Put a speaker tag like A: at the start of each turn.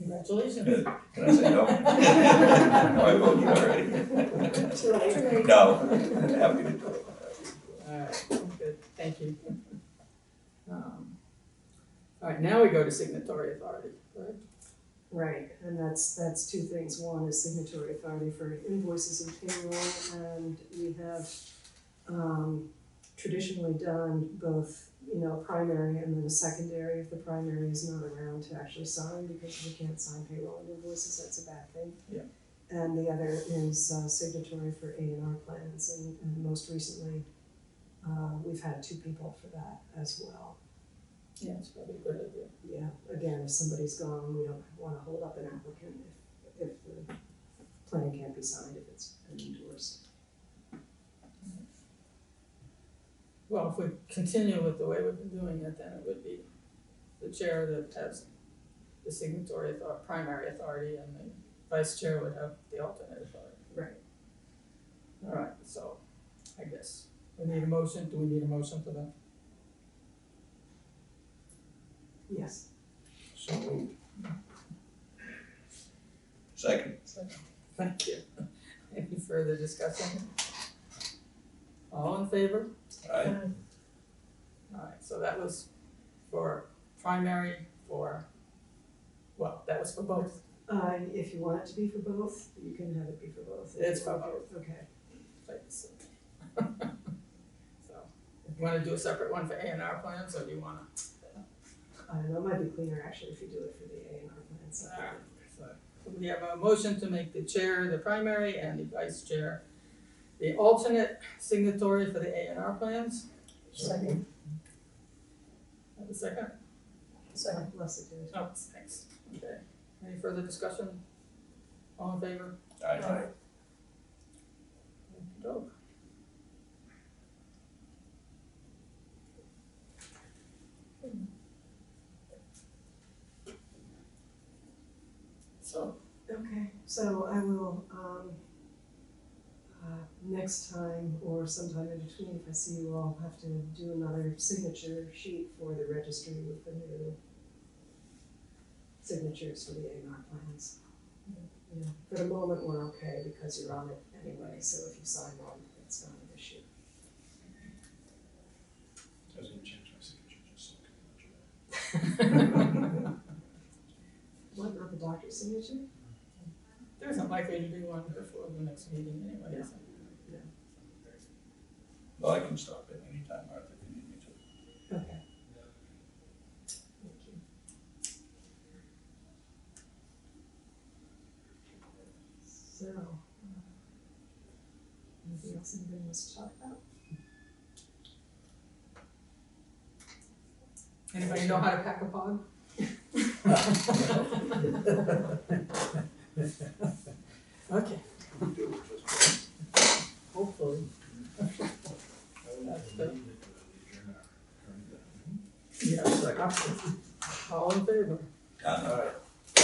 A: That's always a good.
B: Can I say no? No, I voted already. No, happy to do it.
A: Alright, good, thank you. Um, Alright, now we go to signatory authority, right?
C: Right, and that's, that's two things. One is signatory authority for invoices and payroll, and we have um traditionally done both, you know, primary and then a secondary if the primary is not around to actually sign, because if you can't sign payroll and invoices, that's a bad thing.
B: Yeah.
C: And the other is uh signatory for A and R plans, and and most recently, uh we've had two people for that as well.
A: Yeah, it's probably a good idea.
C: Yeah, again, if somebody's gone, we don't wanna hold up an applicant if, if the plan can't be signed, if it's endorsed.
A: Well, if we continue with the way we've been doing it, then it would be the chair that has the signatory author, primary authority, and the vice chair would have the alternate authority.
C: Right.
A: Alright, so, I guess, we need a motion, do we need a motion for that?
C: Yes.
B: So moved. Second.
A: Thank you. Any further discussion? All in favor?
B: Aye.
A: Alright, so that was for primary, for, well, that was for both,
C: Uh, if you want it to be for both, you can have it be for both.
A: It's for both.
C: Okay,
A: places. So, if you wanna do a separate one for A and R plans, or do you wanna?
C: I don't know, it Uh, might be cleaner actually if you do it for the A and R plan, so.
A: Alright, so We have a motion to make the chair the primary and the vice chair the alternate signatory for the A and R plans.
D: Second,
A: Have a second?
D: second.
C: Less it did.
A: No, thanks. Okay, any further discussion? All in favor?
B: Aye.
A: Go. So,
C: Okay, so I will, um, uh, next time or sometime in between, if I see you all, have to do another signature sheet for the registry with the new signatures for the A and R plans. Yeah, for the moment, we're okay because you're on it anyway, so if you sign on, it's not an issue.
E: Doesn't change my signature, just so I
C: What, not the doctor's signature?
A: there isn't likely to be one before the next meeting anyway, is there?
B: Well, I can stop at any time, Martha, if you need me to.
C: Okay. Thank you. So, uh, anything else anybody wants to talk about?
A: Anybody know how to pack a pod? Okay. Hopefully.
E: can
A: That's
E: leave it, but we adjourn our- our-
A: Yeah, All in favor?
B: Aye.